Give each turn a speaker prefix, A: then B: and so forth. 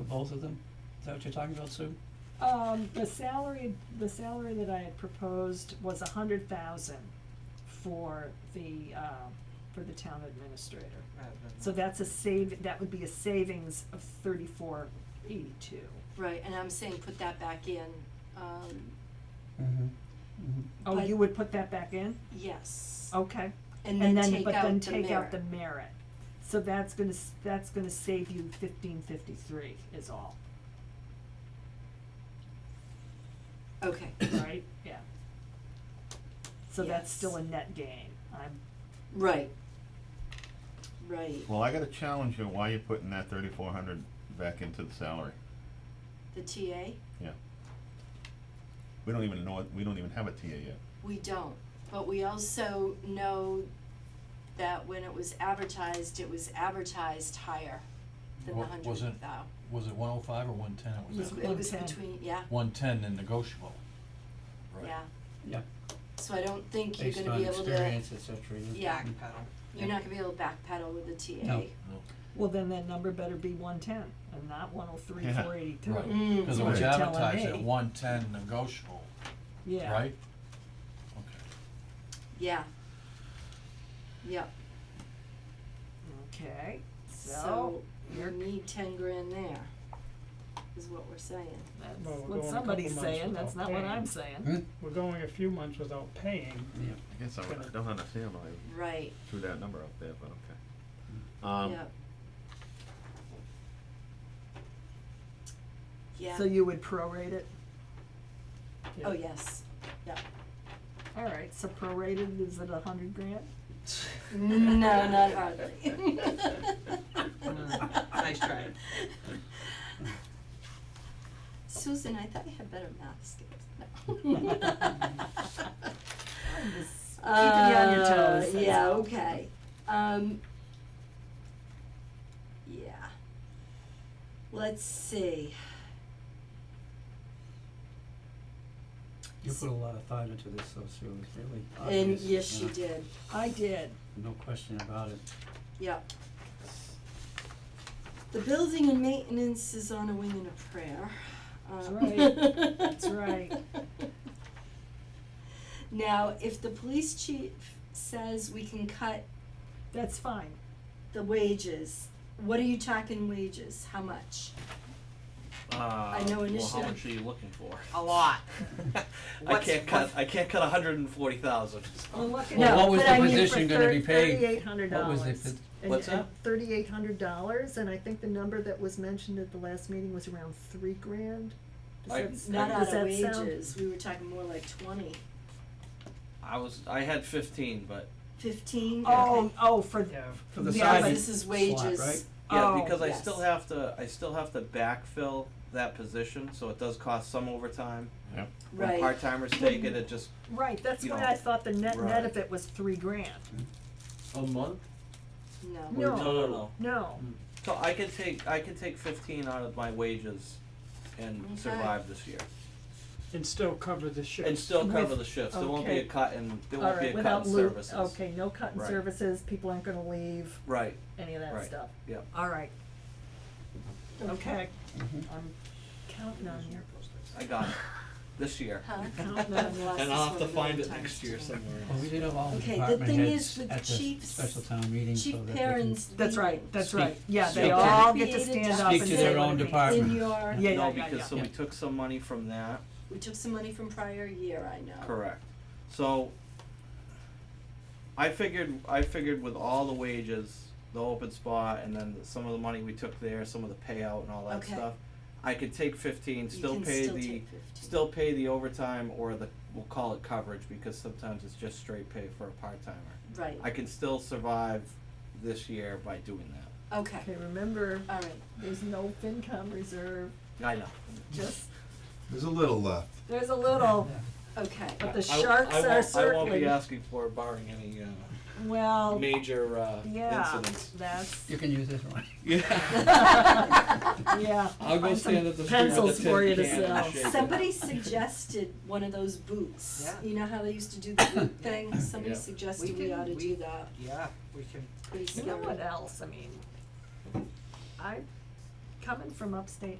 A: both of them? Is that what you're talking about, Sue?
B: Um, the salary, the salary that I had proposed was a hundred thousand for the, uh, for the town administrator.
C: rather than.
B: So that's a save, that would be a savings of thirty-four eighty-two.
D: Right, and I'm saying put that back in, um,
A: Mm-hmm.
B: Oh,
D: But-
B: you would put that back in?
D: yes.
B: Okay.
D: And then take
B: but
D: out
B: then
D: the
B: take out
D: merit.
B: the merit. So that's gonna, s- that's gonna save you fifteen fifty-three is all,
D: Okay,
B: right? Yeah. So that's still a
D: Yes.
B: net gain. I'm,
D: right. Right,
E: Well, I gotta challenge you, why you putting that thirty-four hundred back into the salary?
D: the TA,
E: Yeah. We don't even know, it- we don't even have a TA yet.
D: we don't, but we also know that when it was advertised, it was advertised higher than the
F: Wa-
D: hundred
F: was it-
D: thou.
F: Was it one oh five or one ten? It was
B: Was-
F: that?
D: It was
B: 110.
D: between, yeah,
F: One ten and negotiable. Right.
D: yeah,
A: Yeah,
D: so I don't think you're
G: based
D: gonna
G: on
D: be able to,
G: experience, et cetera.
D: Yeah.
C: Pedal.
D: you're not gonna be able to backpedal with the TA.
A: No.
F: No.
B: well, then that number better be one-ten and not one oh three,
E: Yeah.
B: four eighty-two.
F: Right,
D: Mm.
F: cause it
E: Right.
F: was
E: You're
B: telling
F: advertised
B: me.
F: at one ten negotiable,
B: Yeah.
F: right?
D: Yeah. Yep,
B: Okay, so
D: so we
B: you're-
D: need ten grand there, is what we're saying.
B: that's
G: Well, we're going a
B: what
G: couple
B: somebody's
G: months
B: saying, that's
G: without
B: not what
G: paying.
B: I'm saying.
A: Hmm?
G: We're going a few months without paying.
A: yeah.
E: I guess I I don't understand why you
D: Right,
E: threw that number up there, but okay. Um,
D: yep. Yeah,
B: So you would prorate it?
D: oh, yes, yeah.
B: All right, so prorated, is it a hundred grand?
D: No, not hardly.
C: Nice try.
D: Susan, I thought you had better math skills. No.
B: I'm just keeping you on your toes,
D: Uh,
B: that's
D: yeah,
B: all.
D: okay. Um, yeah. Let's see.
A: You put a lot of thought into this, so Sue, it's really
D: And
A: obvious.
D: yes, she
A: you know,
D: did.
B: I did,
A: No question about it.
D: Yep. The building and maintenance is on a wing and a prayer.
B: That's
D: Um,
B: right. That's right.
D: Now, if the police chief says we can cut
B: that's fine.
D: the wages, what are you talking wages? How much?
H: I
D: know
H: Uh, Well,
D: initiative-
H: how much are you looking for?
C: A lot.
H: I
C: What's-
H: can't cut. I can't cut 140,000.
B: Well, look at
D: No,
F: Well, what was
B: but
F: the
B: I mean,
F: position
B: for
F: gonna be paid?
B: Thirty-eight hundred
F: What
B: dollars.
F: was the pos-
H: what's that?
B: Thirty-eight hundred dollars, and I think the number that was mentioned at the last meeting was around three grand. Does
H: I-
B: that s-
D: Not
B: does
D: out of
B: that sound-
D: wages. We were talking more like twenty.
H: I was. I had 15, but
D: Fifteen?
B: Oh,
D: Okay.
B: oh, for,
G: Yeah,
A: For the
B: Yeah,
A: side
B: but
D: this is wages.
A: slot, right?
H: yeah,
B: Oh,
H: because I
D: yes.
H: still have to. I still have to backfill that position, so it does cost some overtime.
E: Yep.
D: Right.
H: When part timers take it, it just
B: right, that's
H: You
B: why
H: know,
B: I thought the net, net
H: right.
B: of it was three grand.
H: a month.
D: No.
B: No.
H: no, no, no.
B: No,
H: So I can take. I can take 15 out of my wages, and
D: Okay.
H: survive this year,
G: and still cover the shift.
H: and still cover
B: With-
H: the shifts. There won't be a
B: okay.
H: cut in. There
B: all
H: won't
B: right,
H: be a cut
B: without
H: in
B: loot,
H: services.
B: okay, no cut in
H: Right.
B: services, people aren't gonna leave,
H: Right.
B: any of that
H: Right.
B: stuff.
H: Yep.
B: All right, okay, Mm-hmm.
A: Mhm.
B: I'm counting on you.
H: I got it. This year.
D: Huh?
B: Count that.
D: I've lost
H: And
D: this
H: I'll have to
D: one a
H: find
D: million
H: it
D: times
H: next year
D: today.
H: somewhere
A: Well, we did have all the
D: Okay, the
A: department
D: thing
A: heads
D: is with
A: at the
D: chiefs-
A: special town meeting so
D: Chief
A: that they can
D: Perrin's
B: That's right,
D: meeting.
B: that's
A: Speak-
B: right, yeah, they
A: speak to-
B: all get to
D: Created
B: stand up
A: Speak
B: and
A: to
B: say
A: their
B: what
A: own
B: it means.
A: department.
D: In your,
B: Yeah, yeah,
H: No,
B: yeah,
H: because, so
B: yeah.
H: we took some money from that,
D: we took some money from prior year, I know.
H: correct. So, I figured, I figured with all the wages, the open spot, and then some of the money we took there, some of the payout and all that
D: Okay.
H: stuff, I could take fifteen,
D: You
H: still
D: can
H: pay
D: still
H: the,
D: take 15.
H: still pay the overtime or the, we'll call it coverage, because sometimes it's just straight pay for a part-timer.
D: Right,
H: I can still survive this year by doing that.
D: okay,
B: Okay, remember,
D: all right.
B: there's no FinCom reserve,
H: I know.
B: just,
I: There's a little uh, left.
B: there's a little,
D: Okay,
B: but
H: I-
B: the
H: I- I
B: sharks
H: won't-
B: are
H: I won't be
B: certainly,
H: asking for it barring any, uh,
B: well,
H: major, uh,
B: yeah,
H: incidents.
B: that's,
A: You can use this one.
B: yeah.
H: I'll go
B: find some
H: stand at the street with
B: pencils
H: a
B: for
H: tin
B: you to
H: can and
B: sell.
H: shake it.
D: somebody suggested one of those boots.
C: Yeah.
D: You know how they used to do the boot thing? Somebody
H: Yeah.
D: suggested
C: We
D: we
C: can-
D: ought to
C: we-
D: do that.
C: Yeah, we can,
D: Pretty
B: You know
D: scary.
B: what else, I mean, I, coming from upstate